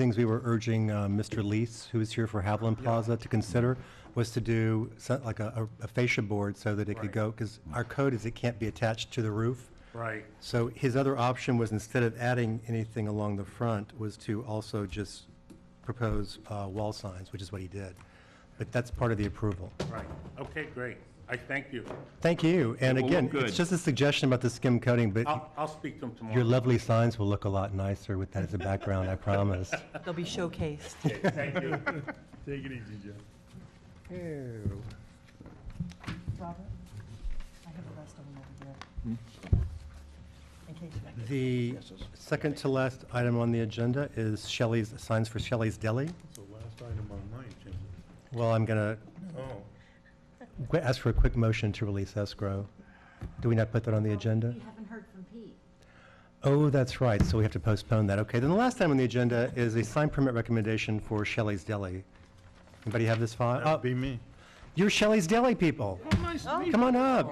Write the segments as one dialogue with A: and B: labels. A: things we were urging uh, Mr. Lees, who is here for Haviland Plaza, to consider was to do so- like a a fascia board so that it could
B: Right.
A: go, because our code is it can't be attached to the roof.
B: Right,
A: So his other option was instead of adding anything along the front, was to also just propose uh, wall signs, which is what he did. But that's part of the approval.
B: right. Okay, great. I thank you.
A: Thank you. And
C: It will
A: again,
C: look good.
A: it's just a suggestion about the skim coating, but
B: I'll, I'll speak to him
A: your
B: tomorrow.
A: lovely signs will look a lot nicer with that as a background, I promise.
D: They'll be showcased.
B: Thank you.
E: Take it easy, Jeff.
D: Robert, I have the rest of them over there. In case
A: The
D: you
A: second to last item on the agenda is Shelley's, signs for Shelley's Deli.
E: It's the last item on my agenda.
A: Well, I'm going
E: Oh,
A: to ask for a quick motion to release escrow. Do we not put that on the agenda?
F: We haven't heard from Pete.
A: Oh, that's right, so we have to postpone that. Okay, then the last item on the agenda is a sign permit recommendation for Shelley's Deli. Anybody have this file?
E: that'd
A: Oh,
E: be me.
A: you're Shelley's Deli people.
E: Nice to
A: Come on up.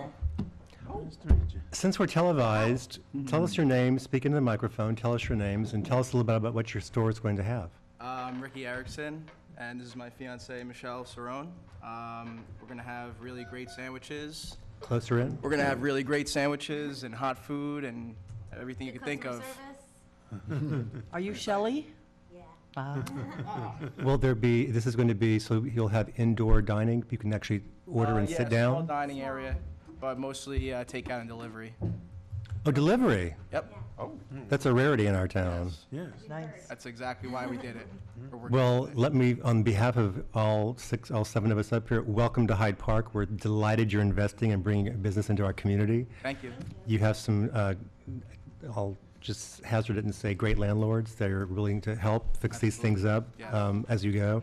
E: Nice to meet you.
A: Since we're televised, tell us your name, speak into the microphone, tell us your names, and tell us a little bit about what your store is going to have.
G: I'm Ricky Erickson, and this is my fiancee Michelle Cerrone. Um, we're gonna have really great sandwiches.
A: Closer in?
G: We're gonna have really great sandwiches and hot food and everything you can think
F: Customer
G: of.
F: service?
D: Are you Shelley?
F: Yeah.
D: Ah,
A: Will there be, this is going to be, so you'll have indoor dining, you can actually
G: Uh,
A: order and
G: yeah,
A: sit
G: Small
A: down?
G: dining area, but mostly uh, takeout and delivery.
A: Oh, delivery,
G: Yep,
A: that's a rarity in our town.
E: Yes.
D: nice.
G: that's exactly why we did it. We're working on
A: Mm-hmm. Well,
G: it.
A: let me, on behalf of all six, all seven of us up here, welcome to Hyde Park. We're delighted you're investing and bringing business into our community.
G: Thank you.
A: You have some, uh, I'll just hazard it and say, great landlords that are willing to help fix these things up
G: Yeah.
A: um, as you go.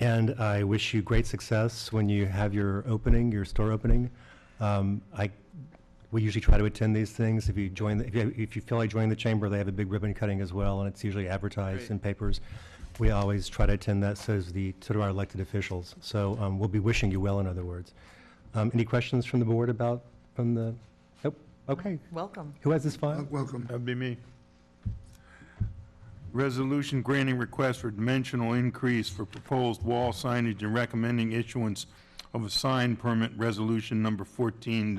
A: And I wish you great success when you have your opening, your store opening. Um, I, we usually try to attend these things. If you join, the- if you, if you feel like joining the chamber, they have a big ribbon cutting as well, and it's usually advertised
G: Great.
A: in papers. We always try to attend that, so is the, so do our elected officials. So um, we'll be wishing you well, in other words. Um, Any questions from the board about, from the, nope, okay.
D: Welcome.
A: Who has this file?
H: Welcome.
E: That'd be me. Resolution granting request for dimensional increase for proposed wall signage and recommending issuance of a sign permit, resolution number fourteen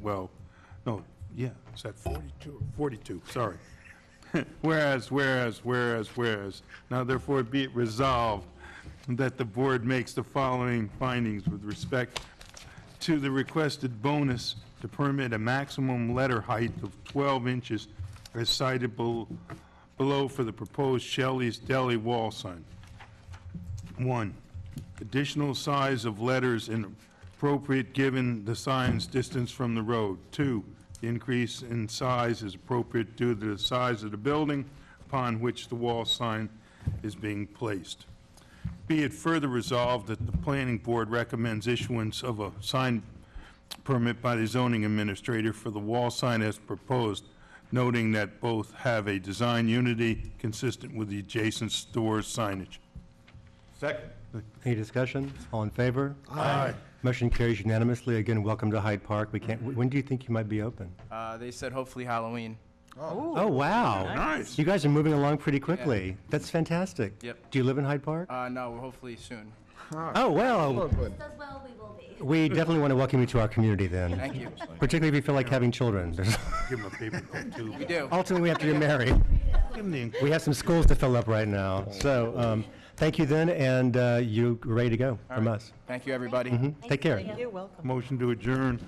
E: twelve. No, yeah, it's at forty-two, forty-two, sorry. Whereas, whereas, whereas, whereas, now therefore be it resolved that the board makes the following findings with respect to the requested bonus to permit a maximum letter height of 12 inches as cited bel- below for the proposed Shelley's Deli wall sign. One, additional size of letters and appropriate given the sign's distance from the road. Two, the increase in size is appropriate due to the size of the building upon which the wall sign is being placed. Be it further resolved that the planning board recommends issuance of a sign permit by the zoning administrator for the wall sign as proposed, noting that both have a design unity consistent with the adjacent store signage. Second.
A: Any discussion? All in favor?
E: Aye.
A: Motion carries unanimously. Again, welcome to Hyde Park. We can't, when do you think you might be open?
G: Uh, they said hopefully Halloween.
A: Oh, wow.
E: Nice.
A: You guys are moving along pretty quickly. That's fantastic.
G: Yep.
A: Do you live in Hyde Park?
G: Uh, no, hopefully soon.
A: Oh, well,
F: Does well, we will be.
A: we definitely want to welcome you to our community then,
G: Thank you.
A: particularly if you feel like having children. There's-
E: Give him a paper cut, too.
G: We do.
A: Ultimately, we have to get married.
E: Give him the-
A: We have some schools to fill up right now. So, um, thank you then, and, uh, you're ready to go from us.
G: Thank you, everybody.
A: Take care.
D: You're welcome.
E: Motion to adjourn.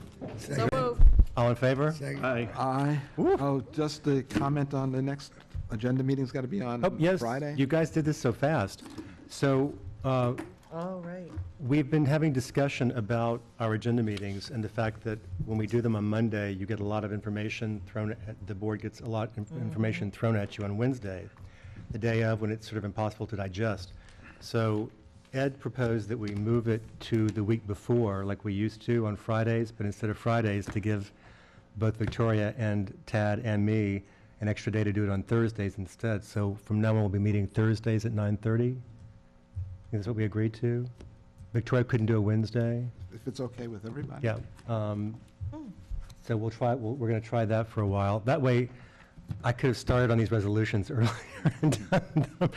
A: All in favor?
H: Aye. Oh, just to comment on the next agenda meeting's got to be on
A: Oh, yes,
H: Friday?
A: you guys did this so fast. So, uh,
D: All right.
A: We've been having discussion about our agenda meetings and the fact that when we do them on Monday, you get a lot of information thrown, at- the board gets a lot of information thrown at you on Wednesday, the day of, when it's sort of impossible to digest. So Ed proposed that we move it to the week before, like we used to on Fridays, but instead of Fridays, to give both Victoria and Tad and me an extra day to do it on Thursdays instead. So from now on, we'll be meeting Thursdays at 9:30? Is what we agreed to? Victoria couldn't do a Wednesday?
H: If it's okay with everybody?
A: Yeah. um, So we'll try, we'll- we're going to try that for a while. That way, I could have started on these resolutions earlier and done them.